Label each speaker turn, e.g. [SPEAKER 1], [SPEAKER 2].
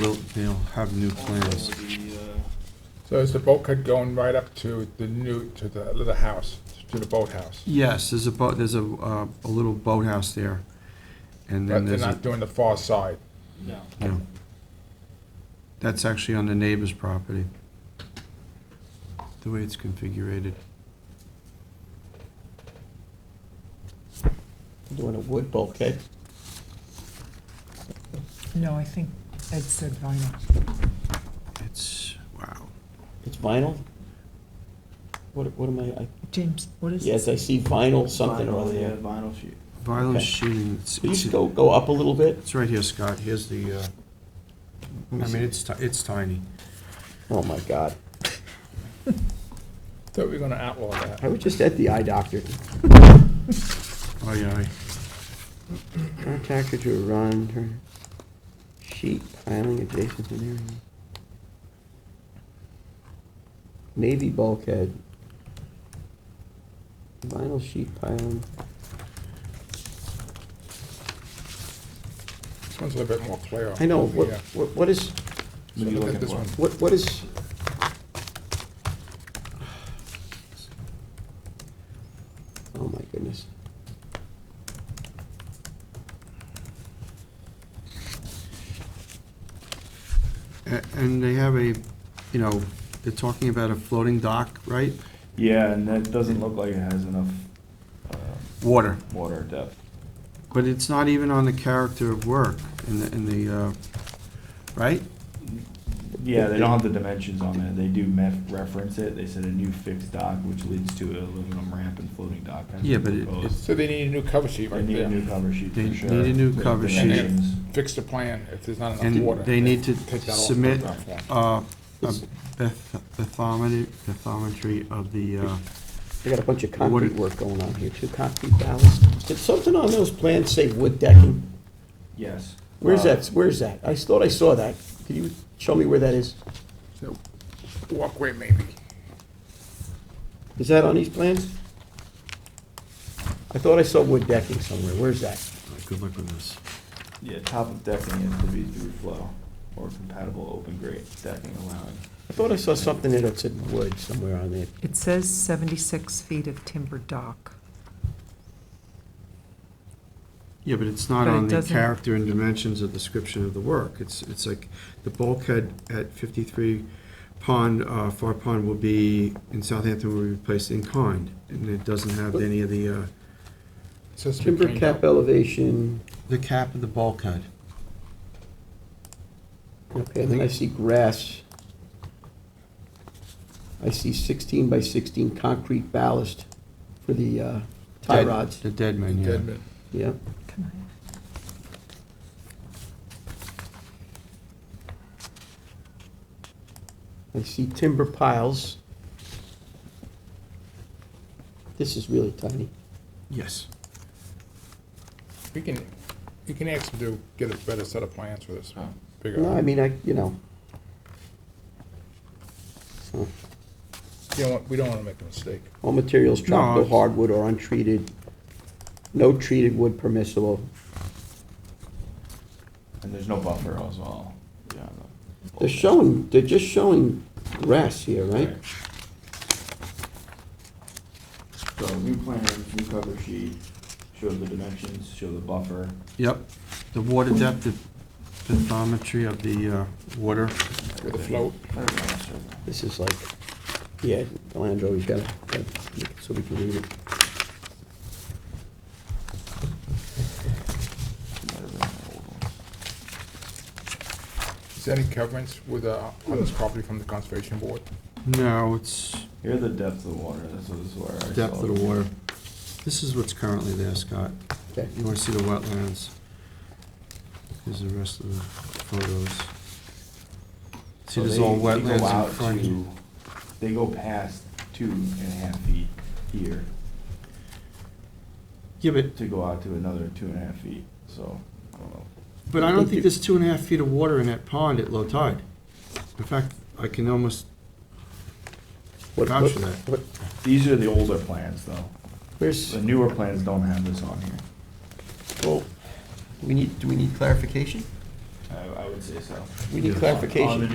[SPEAKER 1] They'll, they'll have new plans.
[SPEAKER 2] Also, the, uh,
[SPEAKER 3] So is the bulkhead going right up to the new, to the, to the house, to the boathouse?
[SPEAKER 1] Yes, there's a boat, there's a, uh, a little boathouse there, and then
[SPEAKER 3] But they're
[SPEAKER 1] there's, a-
[SPEAKER 3] not doing the far side?
[SPEAKER 2] No,
[SPEAKER 1] no. That's actually on the neighbor's property, the way it's configured.
[SPEAKER 4] Doing a wood bulkhead.
[SPEAKER 5] No, I think Ed said vinyl.
[SPEAKER 1] It's, wow.
[SPEAKER 4] It's vinyl? What, what am I, I,
[SPEAKER 5] James, what is
[SPEAKER 4] yes,
[SPEAKER 5] this?
[SPEAKER 4] I see vinyl something
[SPEAKER 2] vinyl,
[SPEAKER 4] or other.
[SPEAKER 2] yeah,
[SPEAKER 4] there.
[SPEAKER 2] Vinyl sheet.
[SPEAKER 1] Vinyl
[SPEAKER 4] Okay.
[SPEAKER 1] sheeting, it's,
[SPEAKER 4] Could you
[SPEAKER 1] it's,
[SPEAKER 4] just go, go up a little bit?
[SPEAKER 1] it's right here, Scott, here's the, uh, I mean, it's, ti- it's tiny.
[SPEAKER 4] Oh, my God.
[SPEAKER 3] Thought we were gonna outlaw
[SPEAKER 4] I
[SPEAKER 3] that.
[SPEAKER 4] was just at the eye doctor.
[SPEAKER 1] Aye, aye.
[SPEAKER 4] Contractor to run, her sheet piling adjacent to an area. Navy bulkhead. Vinyl sheet piling.
[SPEAKER 3] This one's a little bit more clear.
[SPEAKER 4] I know, what,
[SPEAKER 3] Yeah.
[SPEAKER 4] what, what is,
[SPEAKER 3] So
[SPEAKER 2] What are you
[SPEAKER 3] look
[SPEAKER 2] looking
[SPEAKER 3] at this
[SPEAKER 2] for?
[SPEAKER 3] one.
[SPEAKER 4] what, what is, oh my goodness.
[SPEAKER 1] A- And they have a, you know, they're talking about a floating dock, right?
[SPEAKER 2] Yeah, and that doesn't look like it has enough uh,
[SPEAKER 1] Water.
[SPEAKER 2] water depth.
[SPEAKER 1] But it's not even on the character of work in the, in the, uh, right?
[SPEAKER 2] Yeah, they don't have the dimensions on it. They do mef- reference it. They said a new fixed dock, which leads to an aluminum ramp and floating dock. has
[SPEAKER 1] Yeah,
[SPEAKER 2] been
[SPEAKER 1] but it-
[SPEAKER 2] proposed.
[SPEAKER 3] So they need a new cover sheet
[SPEAKER 2] They
[SPEAKER 3] right
[SPEAKER 2] need a
[SPEAKER 3] there.
[SPEAKER 2] new cover sheet
[SPEAKER 1] They
[SPEAKER 2] for sure.
[SPEAKER 1] need a new
[SPEAKER 2] with
[SPEAKER 1] cover sheet.
[SPEAKER 2] dimensions.
[SPEAKER 3] Fix the plan if there's not enough water.
[SPEAKER 1] And they need to
[SPEAKER 3] Take that off the
[SPEAKER 1] submit
[SPEAKER 3] ground floor.
[SPEAKER 1] uh, a bath- bathometry, bathometry of the, uh,
[SPEAKER 4] I got a bunch of
[SPEAKER 1] What
[SPEAKER 4] concrete
[SPEAKER 1] it-
[SPEAKER 4] work going on here, too, concrete ballast. Did something on those plans say wood decking?
[SPEAKER 2] Yes.
[SPEAKER 4] Where's
[SPEAKER 2] Uh,
[SPEAKER 4] that, where's that? I thought I saw that. Could you show me where that is?
[SPEAKER 3] So, Walkway maybe.
[SPEAKER 4] Is that on these plans? I thought I saw wood decking somewhere. Where's that?
[SPEAKER 1] good luck with this.
[SPEAKER 2] Yeah, top of decking is to be through flow or compatible open grade decking allowing.
[SPEAKER 4] I thought I saw something that said wood somewhere on there.
[SPEAKER 5] It says 76 feet of timber dock.
[SPEAKER 1] Yeah, but it's not
[SPEAKER 5] But it
[SPEAKER 1] on the
[SPEAKER 5] doesn't-
[SPEAKER 1] character and dimensions or description of the work. It's, it's like, the bulkhead at 53 Pond, uh, Far Pond will be, in Southampton, will be replaced in kind. And it doesn't have any of the, uh,
[SPEAKER 3] It says we
[SPEAKER 4] Timber
[SPEAKER 3] cleaned
[SPEAKER 4] cap
[SPEAKER 3] up.
[SPEAKER 4] elevation.
[SPEAKER 1] the cap of the bulkhead.
[SPEAKER 4] Okay, then I see grass. I see 16 by 16 concrete ballast for the uh, tie
[SPEAKER 1] Dead-
[SPEAKER 4] rods.
[SPEAKER 1] The dead man, yeah.
[SPEAKER 3] Dead man.
[SPEAKER 4] Yeah.
[SPEAKER 5] Can I?
[SPEAKER 4] I see timber piles. This is really tiny.
[SPEAKER 1] Yes.
[SPEAKER 3] We can, you can ask them to get a better set of plans for this. Bigger.
[SPEAKER 4] No, I mean, I, you know. So,
[SPEAKER 3] You don't want- we don't wanna make a mistake.
[SPEAKER 4] All materials tropical
[SPEAKER 1] No.
[SPEAKER 4] hardwood or untreated. No treated wood permissible.
[SPEAKER 2] And there's no buffer as well. Yeah.
[SPEAKER 4] They're showing, they're just showing grass here, right?
[SPEAKER 2] So new plan, new cover sheet, shows the dimensions, show the buffer.
[SPEAKER 1] Yep. The water depth, the bathymetry of the uh, water.
[SPEAKER 3] With a float.
[SPEAKER 4] This is like, yeah, Delandro, we gotta, gotta make it so we can read it.
[SPEAKER 3] Is there any covenants with, uh, on this property from the conservation board?
[SPEAKER 1] No, it's
[SPEAKER 2] Here the depth of the water, this is where I saw.
[SPEAKER 1] depth of the water. This is what's currently there, Scott.
[SPEAKER 4] Okay.
[SPEAKER 1] You want to see the wetlands? Here's the rest of the photos. See,
[SPEAKER 2] So
[SPEAKER 1] there's
[SPEAKER 2] they-
[SPEAKER 1] all
[SPEAKER 2] they go
[SPEAKER 1] wetlands
[SPEAKER 2] out
[SPEAKER 1] in front.
[SPEAKER 2] to- They go past two and a half feet here
[SPEAKER 1] Yeah, but,
[SPEAKER 2] to go out to another two and a half feet, so, I don't know.
[SPEAKER 1] but I don't think there's two and a half feet of water in that pond at low tide. In fact, I can almost,
[SPEAKER 4] What-
[SPEAKER 1] Vouch
[SPEAKER 4] what-
[SPEAKER 1] for that.
[SPEAKER 4] what-
[SPEAKER 2] These are the older plans, though.
[SPEAKER 4] Where's,
[SPEAKER 2] The newer plans don't have this on here.
[SPEAKER 4] well, we need, do we need clarification? I, I would say so.
[SPEAKER 2] We need
[SPEAKER 6] Yeah.
[SPEAKER 2] clarification.
[SPEAKER 4] On the